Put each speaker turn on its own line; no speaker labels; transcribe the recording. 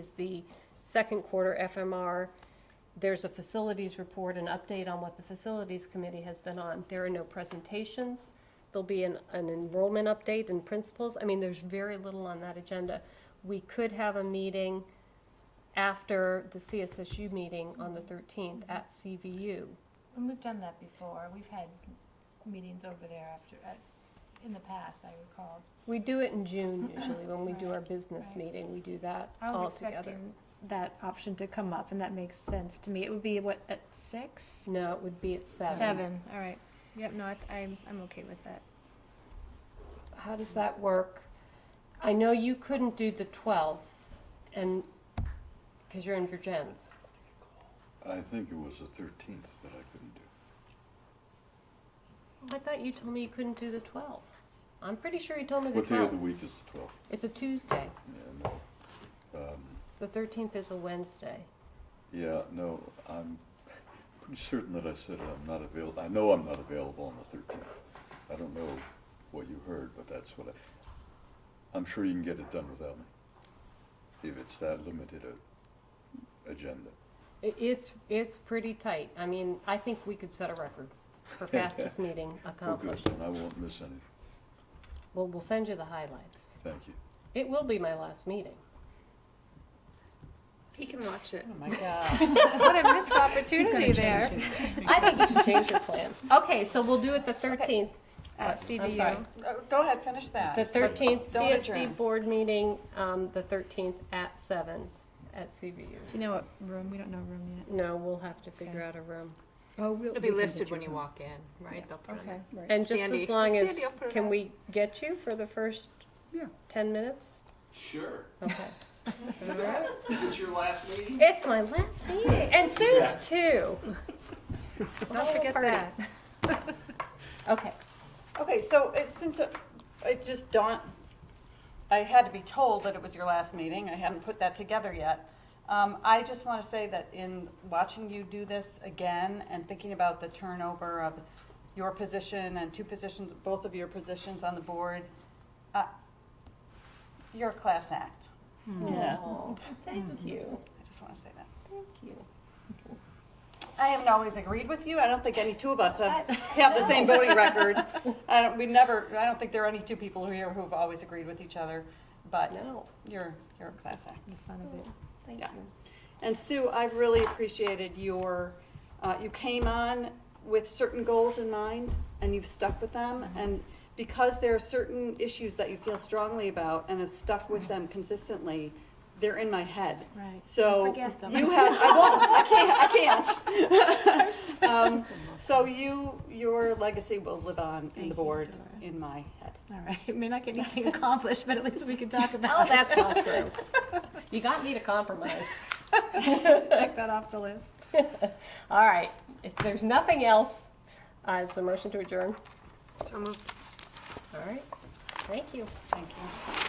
is the second quarter FMR. There's a facilities report, an update on what the facilities committee has been on. There are no presentations. There'll be an, an enrollment update and principals. I mean, there's very little on that agenda. We could have a meeting after the CSSU meeting on the thirteenth at CVU.
And we've done that before. We've had meetings over there after, at, in the past, I recall.
We do it in June usually, when we do our business
Right.
meeting, we do that
I was
all together.
expecting that option to come up, and that makes sense to me. It would be, what, at six?
No, it would be at seven.
Seven, all right. Yep, no, I th- I'm, I'm okay with that.
How does that work? I know you couldn't do the 12th, and, because you're in Virgins.
I think it was the thirteenth that I couldn't do.
I thought you told me you couldn't do the 12th. I'm pretty sure you told me the
What day of the
12th.
week is the twelfth?
It's a Tuesday.
Yeah, no. Um,
The 13th is a Wednesday.
yeah, no, I'm pretty certain that I said I'm not avail, I know I'm not available on the thirteenth. I don't know what you heard, but that's what I, I'm sure you can get it done without me. If it's that limited a agenda.
I- It's, it's pretty tight. I mean, I think we could set a record for fastest meeting
Well, good,
accomplished.
then I won't miss anything.
Well, we'll send you the highlights.
Thank you.
It will be my last meeting.
He can watch it.
Oh my god.
What a missed opportunity there.
I think you should change your plans. Okay, so we'll do it the 13th at
I'm
CVU.
sorry. No, Go ahead, finish that.
The thirteenth
Don't
CSD
adjourn.
board meeting, um, the thirteenth at seven at CVU.
Do you know what room? We don't know room yet.
No, we'll have to figure out a room.
Oh, we'll,
It'll be listed when you walk in, right? They'll put it
Okay.
in.
Right.
And just
Sandy-
as long as,
Sandy, I'll put it
can
on.
we get you for the first ten minutes?
Sure.
Okay.
Is it your last meeting?
It's my last meeting, and Sue's too.
Don't forget
party.
that.
Okay,
Okay, so it, since it, it just dawned, I had to be told that it was your last meeting, I hadn't put that together yet. Um, I just wanna say that in watching you do this again and thinking about the turnover of your position and two positions, both of your positions on the board, uh, you're a class act. Yeah.
Aw, Hmm. thank you,
I just wanna say that.
Hmm. thank you.
I haven't always agreed with you. I don't think any two of us have, have the same voting record. I don't, we never, I don't think there are any two people here who have always agreed with each other, but
No.
you're, you're a class act.
The fun of it.
Yeah. And Sue, I really appreciated your, uh, you came on with certain goals in mind and you've stuck with them. And because there are certain issues that you feel strongly about and have stuck with them consistently, they're in my head.
Right.
So
Don't forget them.
you have, I won't, I can't, I can't. Um, So you, your legacy will live on in
Thank
the
you,
board,
Dora.
in my head.
All right. It may not get anything accomplished, but at least we can talk about
Oh, that's not true. You got me to compromise.
it. Check that off the list.
All right, if there's nothing else, uh, is there a motion to adjourn?
So moved.
All right, thank you.
Thank you.